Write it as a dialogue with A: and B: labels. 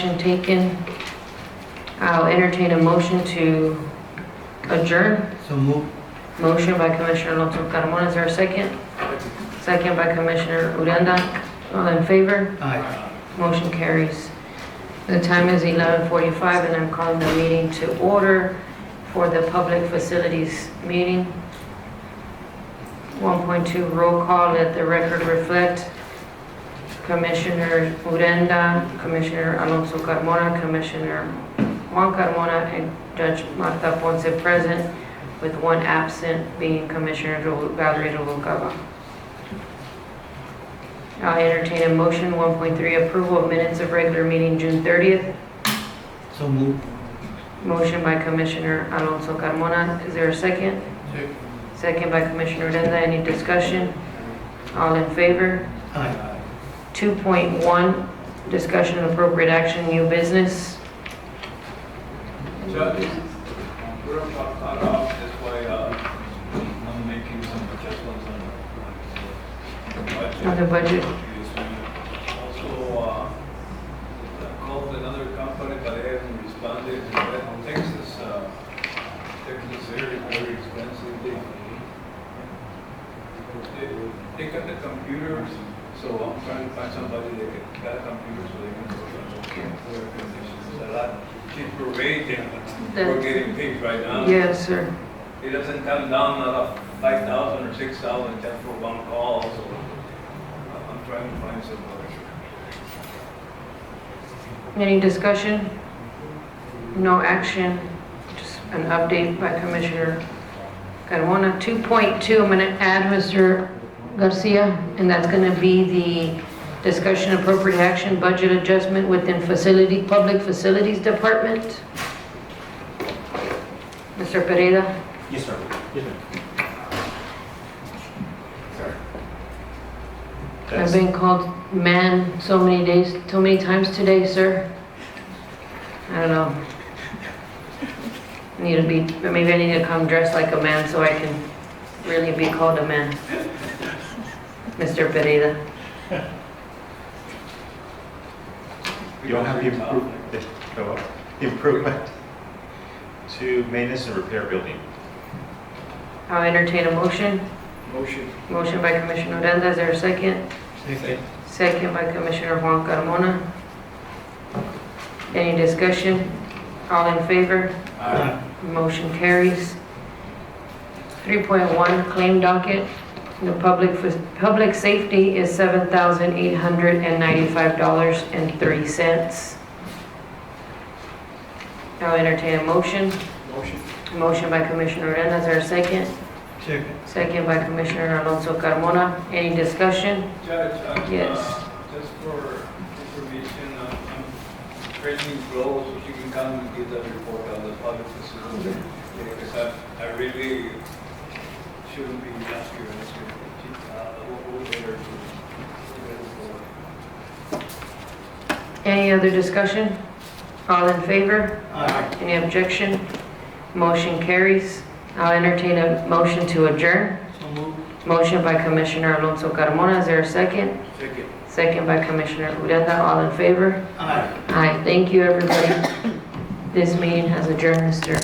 A: Motion taken. I'll entertain a motion to adjourn.
B: So move.
A: Motion by Commissioner Alonso Carmona, is there a second? Second by Commissioner Uranda. All in favor?
B: Aye.
A: Motion carries. The time is 11:45 and I'm calling the meeting to order for the Public Facilities Meeting. 1.2 roll call, let the record reflect. Commissioner Urenda, Commissioner Alonso Carmona, Commissioner Juan Carmona, and Judge Marta Ponce present, with one absent being Commissioner Ru- Valerie Rubalcava. I'll entertain a motion, 1.3 approval of minutes of regular meeting June 30th.
B: So move.
A: Motion by Commissioner Alonso Carmona, is there a second? Second by Commissioner Uranda, any discussion? All in favor?
B: Aye.
A: 2.1, discussion and appropriate action, new business.
C: Judge, we're about cut off, that's why uh, I'm making some adjustments on the budget.
A: On the budget.
C: Also, uh, I called another company, but they haven't responded. But Texas, uh, Texas area is very expensive. They- they- They got the computers, so I'm trying to find somebody that can- got a computer so they can work on the air conditioning. It's a lot cheaper rate than we're
A: That's-
C: getting paid right now.
A: Yes, sir.
C: It doesn't come down out of five thousand or six thousand just for one call, so uh, I'm trying to find somebody.
A: Any discussion? No action, just an update by Commissioner Carmona. 2.2, I'm going to add Mr. Garcia, and that's going to be the discussion appropriate action budget adjustment within facility, public facilities department. Mr. Pereira,
D: Yes, sir. Yes, ma'am.
A: I've been called man so many days, so many times today, sir. I don't know. I Need to be, maybe I need to come dressed like a man so I can really be called a man. Mr. Pereira.
D: You don't have the improvement, go up, improvement to maintenance and repair building.
A: I'll entertain a motion.
C: Motion.
A: Motion by Commissioner Odena, is there a second?
B: Second.
A: Second by Commissioner Juan Carmona. Any discussion? All in favor?
B: Aye.
A: Motion carries. 3.1 Claim Docket. The public, public safety is $7,895.03. I'll entertain a motion.
C: Motion.
A: Motion by Commissioner Odena, is there a second?
B: Second.
A: Second by Commissioner Alonso Carmona. Any discussion?
C: Judge, uh,
A: Yes.
C: uh, just for information, uh, I'm training flow, so you can come and get the report on the public facility. Because I, I really shouldn't be asking you this. Uh, we'll, we'll get her to-
A: Any other discussion? All in favor?
B: Aye.
A: Any objection? Motion carries. I'll entertain a motion to adjourn.
B: So move.
A: Motion by Commissioner Alonso Carmona, is there a second?
C: Second.
A: Second by Commissioner Uranda, all in favor?
B: Aye.
A: Aye, thank you, everybody. This meeting has adjourned, Mr.